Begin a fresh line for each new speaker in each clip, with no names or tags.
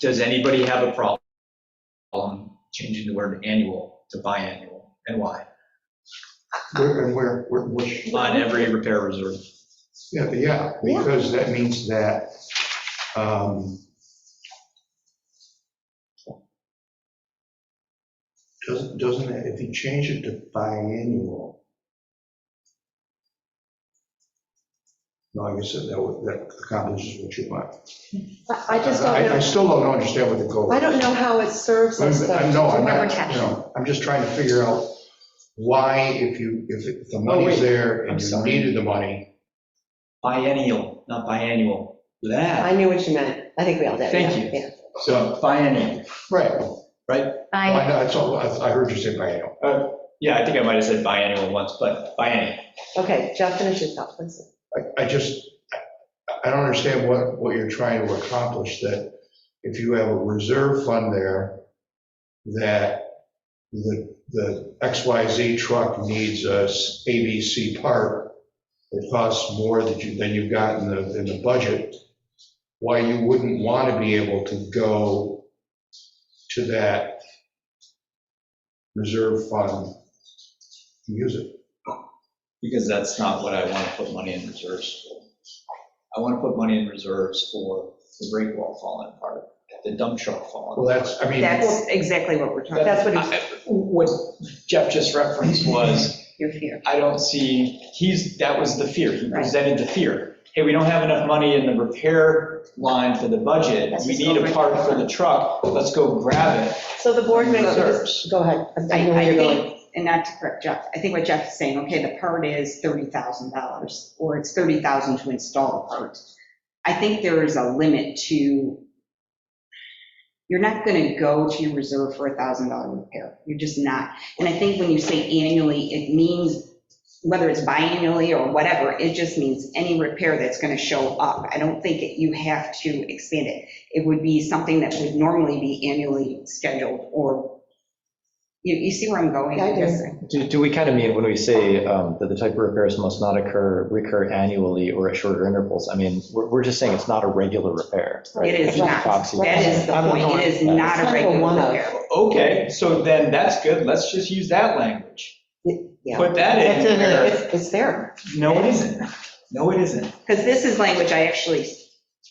Does anybody have a prob- problem changing the word annual to biannual, and why?
Where, and where, where, which,
On every repair reserve.
yeah, but yeah, because that means that, um, doesn't, doesn't, it- if you change it to biannual, no, I guess that, would- that accomplishes what you want.
I I just don't
I
know,
still don't understand what the goal is.
I don't know how it serves
I'm-
us though.
I'm- No, I'm
Consumer
not,
protection.
no, I'm just trying to figure out why if you, if the
Oh,
wait.
money's there
I'm
and you
sorry.
needed the money,
Biennial, not biannual.
I
That,
knew what you meant. I think we all did.
Thank
yeah,
you.
yeah.
so biennial.
right,
I-
I know, that's all, I I heard you say biennial.
Yeah, I think I might have said biannual once, but biennial.
Okay, Jeff, finish your thought, please.
I, I just, I- I don't understand what, what you're trying to accomplish, that if you have a reserve fund there, that the, the XYZ truck needs a s- ABC part, it costs more that you, than you've got in the, in the budget, why you wouldn't want to be able to go to that reserve fund and use it.
because that's not what I want to put money in reserves for. I want to put money in reserves for the break wall falling apart, the dump truck falling.
Well, that's, I mean.
That's exactly what we're talking,
That's what he's,
apart. What Jeff just referenced was,
your fear.
I don't see, he's, that was the fear, he
Right.
presented the fear. Hey, we don't have enough money in the repair line for the budget,
Let's
we
just go
need a
break
part
it
for the
apart.
truck, let's go grab it.
so the board makes a, dec-
Reserves.
go ahead. I- I
I
know where
I
you're going.
think, and not to correct Jeff, I think what Jeff is saying, okay, the part is $30,000, or it's $30,000 to install the part. I think there is a limit to, you're not going to go to your reserve for a $1,000 repair. You're just not. And I think when you say annually, it means, whether it's biannually or whatever, it just means any repair that's going to show up. I don't think that you have to expand it. It would be something that would normally be annually scheduled or, you, you see where I'm going?
Yeah, I do.
guess.
Do, do we kind of mean when we say um, that the type of repairs must not occur, recur annually or at shorter intervals? I mean, we're, we're just saying it's not a regular repair. right?
It is
It's just
not.
proxy.
That is the
I don't
point.
know.
It is
It's kind
not a
of a
regular
one-off.
repair.
Okay, so then that's good, let's just use that language.
Yeah.
Put that in
It's in there.
there.
It's it's there.
No, it isn't. No, it isn't.
Because this is language I actually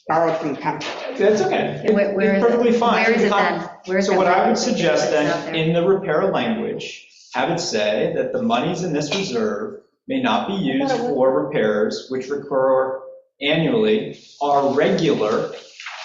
borrowed from Comcast.
That's okay.
And
It- it's Perfectly fine.
Where is it
Comp-
then? Where is
So
that
what I would
language?
suggest
It's not
then,
there.
in the repair language, have it say that the monies in this reserve may not be used
it would-
for repairs which recur annually, are regular,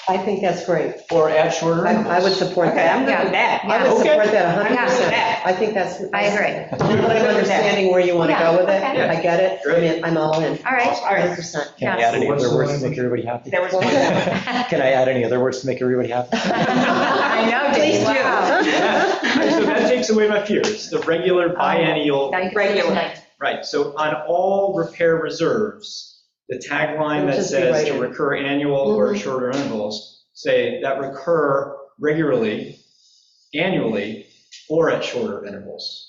I think that's great.
or at shorter
I I would
intervals.
support
Okay, I'm
that.
good with that.
I would
Okay.
support that
I'm good with
100%.
that.
I think that's.
I agree.
But I'm understanding where you want to go with it.
Yeah,
okay.
I get it. I mean, I'm all in.
All right.
All right.
100%.
Can I add any
What's
other
the
words to
language?
make everybody happy?
There was one.
Can I add any other words to make everybody happy?
I know,
Please
Dave,
do.
wow.
So that takes away my fears, the regular biennial,
Now you can sleep
Regular.
tonight.
right, so on all repair reserves, the tagline
It'll
that
just be
says
right
to
in.
recur annual or shorter intervals, say that recur regularly, annually, or at shorter intervals.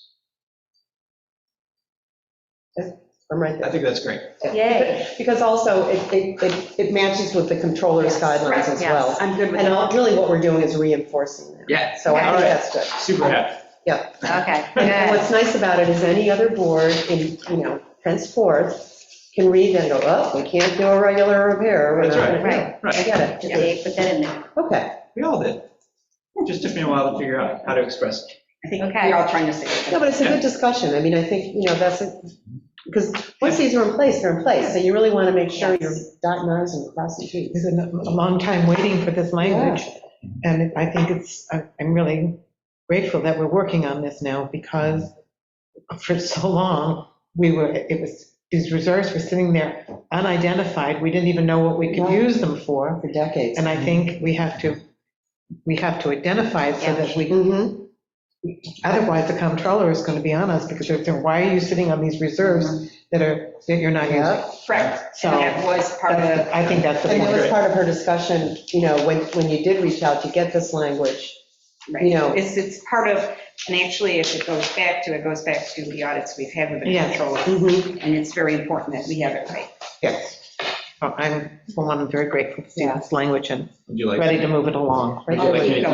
I'm right
I
there.
think that's great.
Yay.
Because also, it, it, it- it matches with the controller's
Yes,
guidelines
right,
as
yes.
well.
I'm good with
And all-
that.
really what we're doing is reinforcing that.
Yeah.
So I think
Okay.
that's good.
Super happy.
Okay,
And
good.
what's nice about it is any other board in, you know, henceforth can read and go, oh, we can't do a regular repair. We're
That's right,
not gonna do it."
right.
I get it.
Just Dave, put that in there.
Okay.
We all did. Just took me a while to figure out how to express. it.
I think
Okay.
we're all trying to say.
No,
it.
but it's a good discussion. I mean, I think, you know, that's, a because once these are in place, they're in place. So you really want to make sure you're dotting i's and crossing t's.
It's been a long time waiting for this language, and I think it's, I- I'm really grateful that we're working on this now, because for so long, we were, it was, these reserves were sitting there unidentified, we didn't even know what we could
Yeah.
use them for,
For decades.
and I think we have to, we have to identify it so that we,
Mhm.
otherwise the comptroller is going to be on us, because they're saying, why are you sitting on these
Mm-hmm.
reserves that are, that you're not using?
Yeah.
Correct.
So-
And that was part of.
That's- I think that's the
And
point.
that was part of her discussion, you know, when, when you did reach out to get this language.
Right,
you know.
it's, it's part of, and actually, if it goes back to, it goes back to the audits we've had with the
Yeah.
controller,
Mhm.
and it's very important that we have it right.
Mm-hmm. Yes.
So I'm, for one, I'm very grateful to see this language and
Would you like?
ready to move it along.
Would you like me to